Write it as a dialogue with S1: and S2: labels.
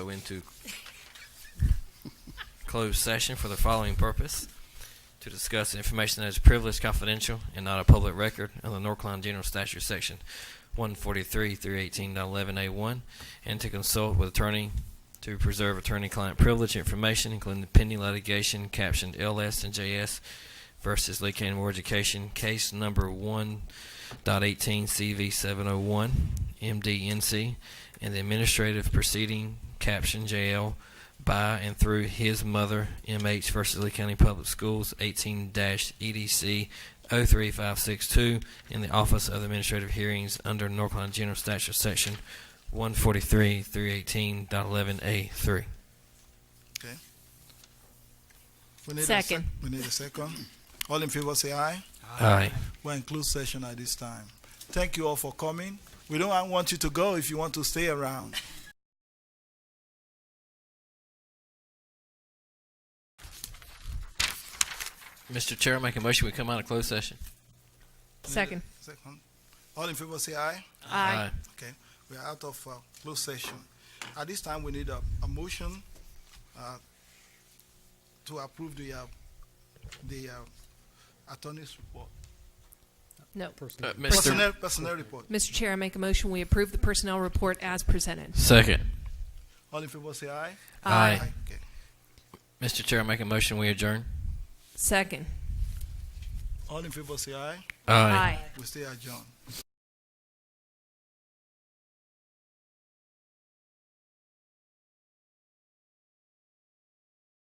S1: go into closed session for the following purpose to discuss information that is privileged, confidential, and not a public record under the North Carolina General Statute Section 143 through 18.11A1, and to consult with attorney to preserve attorney-client privilege information, including the pending litigation captioned LS and JS versus Lee County More Education, case number 1.18CV701, MDNC, and the administrative proceeding caption JL by and through his mother, MH versus Lee County Public Schools, E 18 EDC 03562, in the Office of Administrative Hearings under North Carolina General Statute Section 143 through 18.11A3.
S2: We need a
S3: Second.
S2: sec- We need a second. All in favor say aye.
S1: Aye.
S2: We're in closed session at this time. Thank you all for coming. We don't want you to go if you want to stay around.
S1: Mr. Chair, I make a motion we come out of closed session.
S3: Second.
S2: Second. All in favor say aye.
S3: Aye.
S2: Okay, we are out of uh, closed session. At this time, we need a, a motion uh, to approve the, uh, the uh, attorney's report.
S3: No.
S1: Uh, Mr.
S2: Personnel, personnel report.
S3: Mr. Chair, I make a motion, we approve the personnel report as presented.
S1: Second.
S2: All in favor say aye.
S1: Aye.
S2: Okay.
S1: Mr. Chair, I make a motion we adjourn.
S3: Second.
S2: All in favor say aye.
S3: Aye.
S2: We stay adjourned.